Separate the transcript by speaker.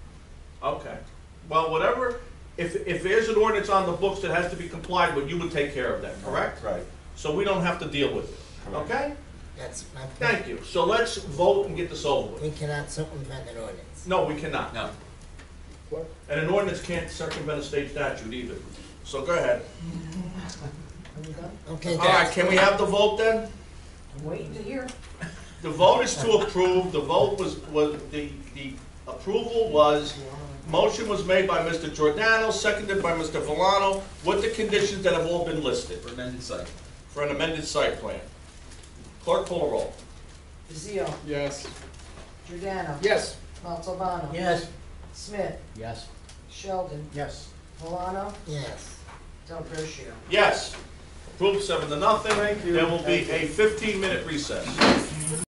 Speaker 1: Okay, well, whatever, if, if there's an ordinance on the books that has to be complied with, you would take care of that, correct?
Speaker 2: Right.
Speaker 1: So we don't have to deal with it,
Speaker 2: Correct.
Speaker 1: okay?
Speaker 3: That's my point.
Speaker 1: Thank you, so let's vote and get this over with.
Speaker 3: We cannot circumvent an ordinance.
Speaker 1: No, we cannot.
Speaker 4: No.
Speaker 1: And an ordinance can't circumvent a state statute either, so go ahead.
Speaker 3: Okay,
Speaker 1: All right,
Speaker 3: guys.
Speaker 1: can we have the vote then?
Speaker 5: I'm waiting to hear.
Speaker 1: The vote is to approve, the vote was, was, the, the approval was, motion was made by Mr. Giordano, seconded by Mr. Valano, with the conditions that have all been listed
Speaker 4: For amended site.
Speaker 1: for an amended site plan. Clerk call a roll.
Speaker 5: Brazil,
Speaker 6: Yes.
Speaker 5: Giordano.
Speaker 6: Yes.
Speaker 5: Montalbano.
Speaker 3: Yes.
Speaker 5: Smith,
Speaker 6: Yes.
Speaker 5: Sheldon,
Speaker 6: Yes.
Speaker 5: Milano,
Speaker 3: Yes.
Speaker 5: Del Brishio.
Speaker 1: Yes, approved seven to nothing. There will be a fifteen-minute recess.